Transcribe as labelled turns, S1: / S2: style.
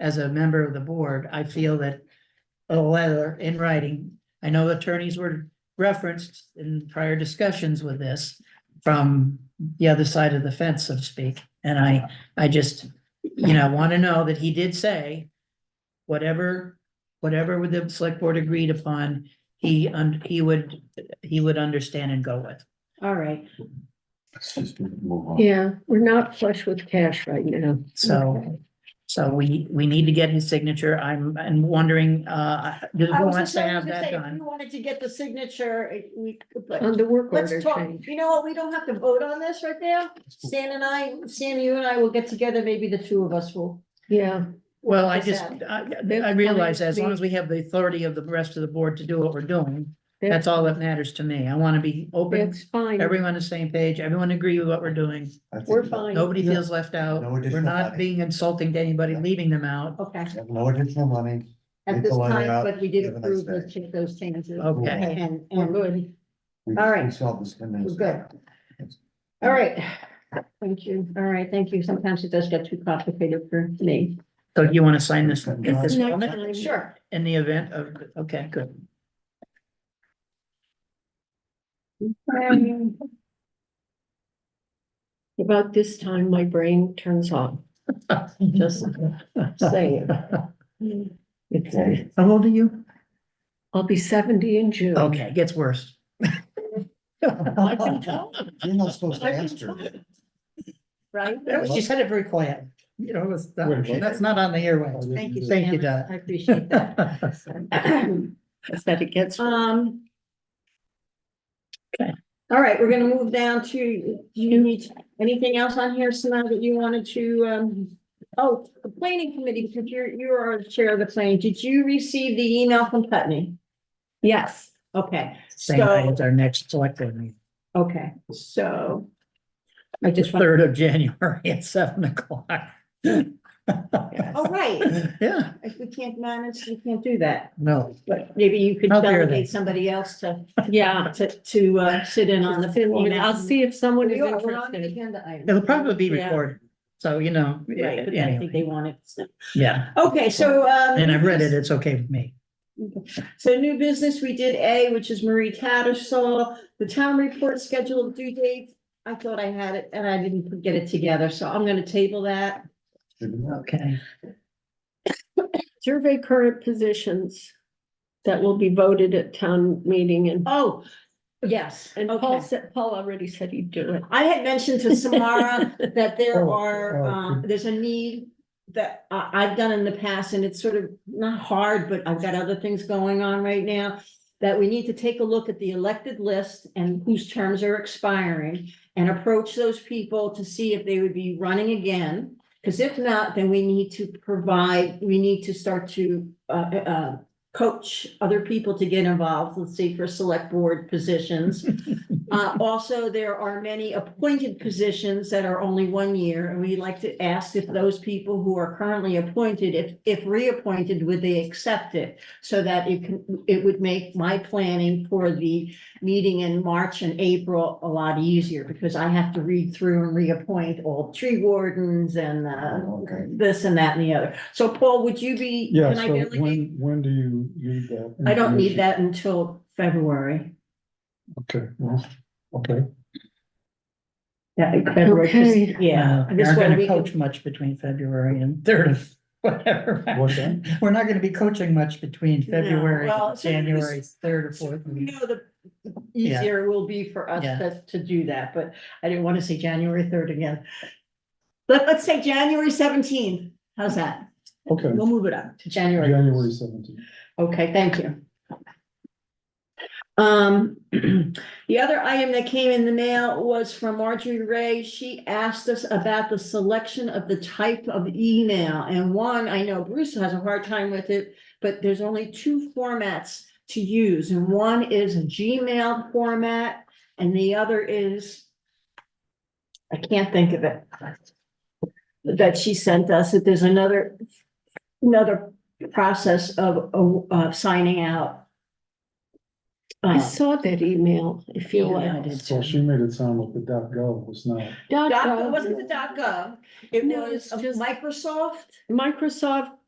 S1: as a member of the board, I feel that a letter in writing, I know attorneys were referenced in prior discussions with this from the other side of the fence, so to speak, and I, I just, you know, want to know that he did say whatever, whatever with the select board agreed upon, he, un- he would, he would understand and go with.
S2: All right,
S3: Let's just move
S1: Oh.
S3: on.
S4: Yeah, we're not flush with cash right now.
S1: So, so we, we need to get his signature. I'm, I'm wondering, uh, does
S2: I
S1: who
S2: was
S1: wants
S2: just
S1: to
S2: going
S1: have
S2: to
S1: that
S2: say, if
S1: done?
S2: you wanted to get the signature, eh, we, could, but
S4: On the work order
S2: let's talk,
S4: change.
S2: you know what, we don't have to vote on this right now. Stan and I, Stan, you and I will get together, maybe the two of us will.
S4: Yeah,
S1: Well, I
S2: Is
S1: just,
S2: that-
S1: I, I
S4: That's
S1: realize as long
S4: fine.
S1: as we have the authority of the rest of the board to do what we're doing, that's
S4: that's,
S1: all that matters to me. I want to be open,
S4: that's fine.
S1: everyone on the same page, everyone agree with what we're doing.
S3: I think
S4: We're
S3: that-
S4: fine.
S1: Nobody
S3: Yeah.
S1: feels left out.
S3: No
S1: We're
S3: additional
S1: not
S3: money.
S1: being insulting to anybody, leaving them out.
S2: Okay,
S3: No additional money.
S2: at
S3: Leave
S2: this
S3: the letter
S2: time,
S3: out,
S2: but we did
S3: have a nice
S2: approve
S3: day.
S2: those, cha- those changes.
S1: Okay.
S2: And,
S4: We're
S2: and,
S4: good.
S3: We-
S2: All right.
S3: We solved this. in minutes.
S2: We're all right, thank you, all right, thank you, sometimes it does get too complicated for me.
S1: So you want to sign this at this
S4: Next
S1: moment
S4: time.
S2: Sure.
S1: in the event of, okay, good.
S2: Um,
S4: About this time, my brain turns on. Just saying. It's,
S3: Okay.
S1: How old are you?
S4: I'll be seventy in June.
S1: Okay, it gets worse. I can tell.
S3: You're not supposed to
S4: I can
S3: answer.
S4: Right?
S1: That was- She said it very quiet, you know, it's
S3: Where did she-
S1: not- that's not on the airwaves.
S2: Thank you.
S1: Thank you,
S2: Stan.
S1: Donna.
S2: I appreciate that.
S4: That's that it gets.
S2: Um.
S1: Okay.
S2: All right, we're gonna move down to, do you need anything else on here, Simone, that you wanted to, um, oh, the planning committee, because you're, you are the chair of the planning, did you receive the email from Putney?
S4: Yes.
S2: Okay,
S1: Same night
S2: so,
S1: as our next select board meeting,
S2: okay, so. I
S1: the
S2: just want,
S1: third of January at seven o'clock.
S2: oh, right,
S1: Yeah,
S2: if we can't manage, we can't do that,
S1: no,
S2: but maybe you could
S1: I'll bear that.
S2: delegate somebody else to,
S4: Yeah.
S2: to, to, uh, sit in on the.
S4: I'll see if someone is
S2: We are- we're on the
S4: interested.
S2: agenda item.
S1: it'll probably be
S4: Yeah.
S1: recorded, so you know.
S2: Right, but I think
S1: anyway.
S2: they want it. so-
S1: Yeah,
S2: Okay, so, um.
S1: and I've read it, it's okay with me.
S2: So new business, we did A, which is Marie Tattersall, the town report scheduled due date. I thought I had it and I didn't get it together, so I'm gonna table that.
S1: Okay,
S4: Survey current positions that will be voted at town meeting and,
S2: Oh, yes,
S4: and Paul
S2: okay.
S4: said, Paul already said he'd do it.
S2: I had mentioned to Samara that there
S1: Oh,
S2: are,
S1: oh,
S2: um, there's a need that I, I've done in the past and it's sort of not hard, but I've got other things going on right now. That we need to take a look at the elected list and whose terms are expiring and approach those people to see if they would be running again. Because if not, then we need to provide, we need to start to, uh, uh, coach other people to get involved, let's say for select board positions. Uh, also, there are many appointed positions that are only one year, and we'd like to ask if those people who are currently appointed, if, if reappointed, would they accept it? So that it can, it would make my planning for the meeting in March and April a lot easier, because I have to read through and reappoint all tree wardens and, uh,
S3: Okay.
S2: this and that and the other. So Paul, would you be?
S5: Yeah,
S2: can I
S5: so
S2: delegate?
S5: when, when do you need that?
S2: I
S1: Mm-hmm.
S2: don't need
S5: information?
S2: that until February.
S5: Okay, well, okay.
S2: Yeah, February, 'cause-
S4: Okay.
S2: yeah.
S1: Uh,
S2: this
S1: We're
S2: way
S1: gonna
S2: we can-
S1: coach much between February and third of whatever.
S5: What's that?
S1: We're not gonna be coaching much between
S2: No,
S1: February,
S2: well,
S1: and
S2: so there's-
S1: January, third or fourth.
S2: You know, the
S1: Yeah.
S2: easier it will be for us
S1: Yeah.
S2: to, to do that, but I didn't want to say January third again. Let, let's say January seventeenth. How's that?
S5: Okay,
S2: We'll move it up to January.
S5: January seventeenth.
S2: Okay, thank you. Um, the other item that came in the mail was from Marjorie Ray. She asked us about the selection of the type of email. And one, I know Bruce has a hard time with it, but there's only two formats to use. And one is a Gmail format and the other is I can't think of it. That she sent us, that there's another, another process of, of, uh, signing out.
S4: I
S2: Uh,
S4: saw that email, I feel
S2: Yeah, I
S4: like.
S2: did
S5: So she made it sound like the dot gov was not.
S4: Dot
S2: Doc,
S4: gov.
S2: it wasn't the dot gov, it
S4: No,
S2: was
S4: it's just-
S2: Microsoft.
S4: Microsoft